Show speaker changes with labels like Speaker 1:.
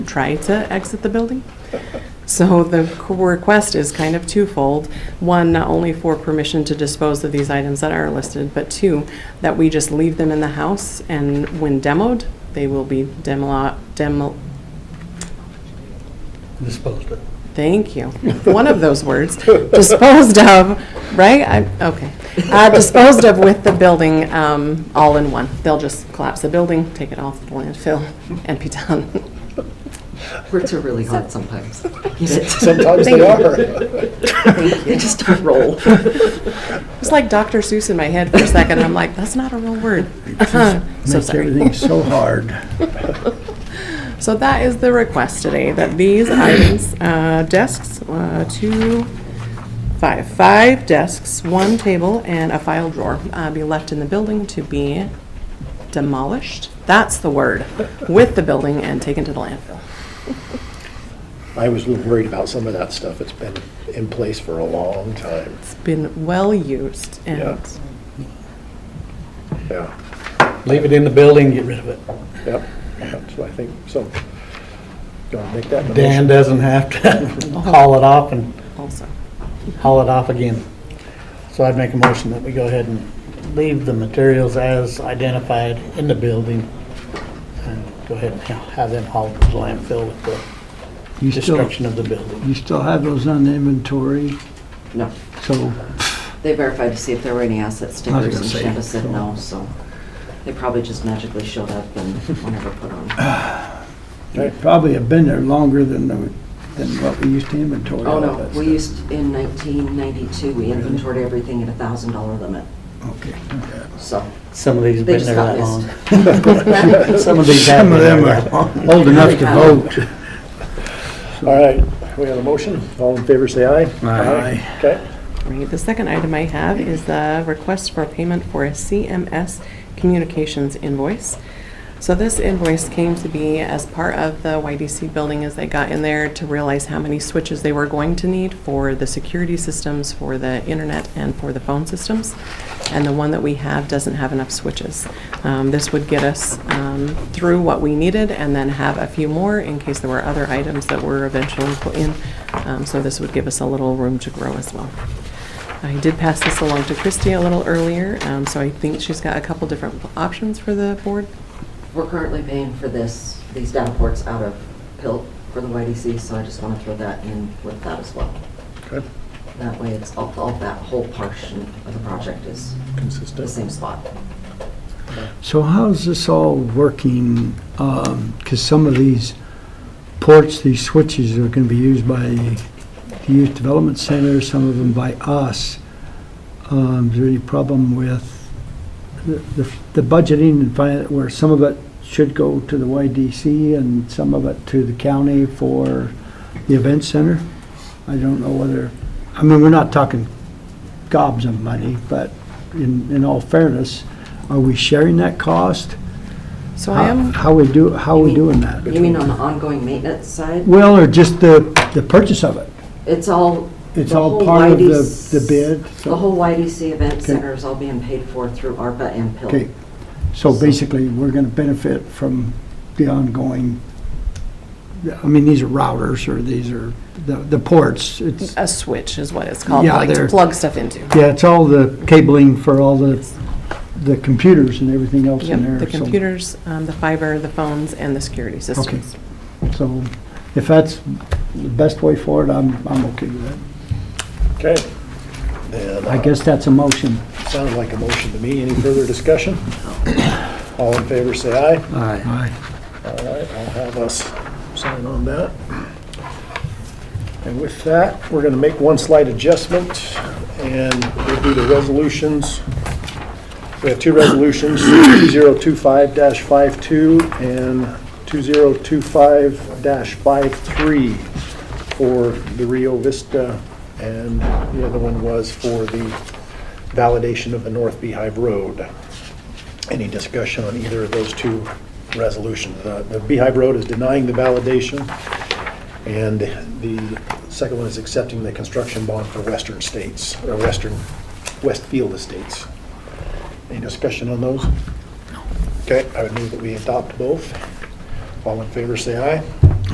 Speaker 1: try to exit the building. So the c- request is kind of twofold. One, not only for permission to dispose of these items that are listed, but two, that we just leave them in the house, and when demoed, they will be demolo, demo,
Speaker 2: disposed of.
Speaker 1: Thank you. One of those words, disposed of, right? I- Okay. Uh, Disposed of with the building um, all in one. They'll just collapse the building, take it off the landfill, and be done.
Speaker 3: Words are really hard sometimes. You just-
Speaker 2: Sometimes
Speaker 1: Thank
Speaker 2: they
Speaker 1: you.
Speaker 2: are.
Speaker 3: They just don't roll.
Speaker 1: It's like Dr. Seuss in my head for a second. I'm like, that's not a real word. So
Speaker 4: Makes
Speaker 1: sorry.
Speaker 4: everything so hard.
Speaker 1: So that is the request today, that these items, uh, desks, uh, two, five, five desks, one table, and a file drawer uh, be left in the building to be demolished, that's the word, with the building and taken to the landfill.
Speaker 2: I was a little worried about some of that stuff. It's been in place for a long time.
Speaker 1: It's been well-used
Speaker 2: Yeah.
Speaker 1: and
Speaker 2: Yeah,
Speaker 4: Leave it in the building, get rid of it.
Speaker 2: yep. That's what I think, so. Gonna make that the
Speaker 4: Dan
Speaker 2: motion.
Speaker 4: doesn't have to haul it off and
Speaker 1: also,
Speaker 4: haul it off again. So I'd make a motion that we go ahead and leave the materials as identified in the building. and Go ahead and have them hauled to the landfill with the
Speaker 5: You still,
Speaker 4: destruction of the building.
Speaker 5: you still have those on inventory,
Speaker 3: No,
Speaker 5: so
Speaker 3: they verified to see if there were any asset
Speaker 5: I was
Speaker 3: stickers
Speaker 5: gonna
Speaker 3: and
Speaker 5: say,
Speaker 3: Shanda said
Speaker 5: so-
Speaker 3: no, so they probably just magically showed up and were never put
Speaker 5: Oh,
Speaker 3: on.
Speaker 5: they probably have been there longer than, the- than what we used to inventory.
Speaker 3: Oh,
Speaker 5: all
Speaker 3: no,
Speaker 5: that
Speaker 3: we
Speaker 5: stuff.
Speaker 3: used, in 1992, we inventoried everything at a thousand dollar limit,
Speaker 5: Okay.
Speaker 3: so
Speaker 4: Some of these have
Speaker 3: they
Speaker 4: been
Speaker 3: just
Speaker 4: there
Speaker 3: got
Speaker 4: that long.
Speaker 3: missed.
Speaker 4: Some of these have
Speaker 5: Some
Speaker 4: been
Speaker 5: of
Speaker 4: there
Speaker 5: them
Speaker 4: that long.
Speaker 5: are old enough to vote.
Speaker 2: All right, we have a motion. All in favor, say aye.
Speaker 5: Aye.
Speaker 2: Okay,
Speaker 1: Right, the second item I have is the request for payment for a CMS communications invoice. So this invoice came to be as part of the YDC building as they got in there to realize how many switches they were going to need for the security systems, for the internet, and for the phone systems. And the one that we have doesn't have enough switches. Um, This would get us um, through what we needed and then have a few more in case there were other items that were eventually put in. Um, So this would give us a little room to grow as well. I did pass this along to Christy a little earlier, um, so I think she's got a couple different options for the board.
Speaker 3: We're currently paying for this, these data ports out of PILT for the YDC, so I just want to throw that in with that as well.
Speaker 2: okay,
Speaker 3: That way it's, all all that whole portion of the project is the
Speaker 2: consistent.
Speaker 3: same spot.
Speaker 5: So how's this all working? Because some of these ports, these switches are going to be used by the Youth Development Center, some of them by us. Um, Is there any problem with the- the the budgeting and fin- where some of it should go to the YDC and some of it to the county for the event center? I don't know whether, I mean, we're not talking gobs of money, but in in all fairness, are we sharing that cost?
Speaker 1: So I am,
Speaker 5: How we do, how we doing that?
Speaker 3: You mean on the ongoing maintenance side?
Speaker 5: Well, or just the, the purchase of it?
Speaker 3: It's all.
Speaker 5: It's
Speaker 3: the
Speaker 5: all
Speaker 3: whole
Speaker 5: part of the-
Speaker 3: YDC
Speaker 5: the bid, so-
Speaker 3: The whole YDC event
Speaker 5: Okay.
Speaker 3: center is all being paid for through ARPA and
Speaker 5: Okay,
Speaker 3: PILT.
Speaker 5: so basically, we're gonna benefit from the ongoing, I mean, these are routers, or these are the, the ports. It's,
Speaker 1: a switch is what it's called,
Speaker 5: Yeah,
Speaker 1: like to
Speaker 5: they're-
Speaker 1: plug stuff into.
Speaker 5: yeah, it's all the cabling for all the, the computers and everything else in there.
Speaker 1: Yep, the
Speaker 5: so-
Speaker 1: computers, um, the fiber, the phones, and the security systems.
Speaker 5: So, if that's the best way forward, I'm, I'm okay with that.
Speaker 2: Okay. And,
Speaker 5: I
Speaker 2: uh,
Speaker 5: guess that's a motion.
Speaker 2: Sounded like a motion to me. Any further discussion? All in favor, say aye.
Speaker 5: Aye.
Speaker 2: All right, I'll have us sign on that. And with that, we're going to make one slight adjustment, and we'll do the resolutions. We have two resolutions, 2025-52 and 2025-53 for the Rio Vista, and the other one was for the validation of the North Beehive Road. Any discussion on either of those two resolutions? Uh, The Beehive Road is denying the validation, and the second one is accepting the construction bond for Western States, or Western, Westfield Estates. Any discussion on those? Okay, I would move that we adopt both. All in favor, say aye.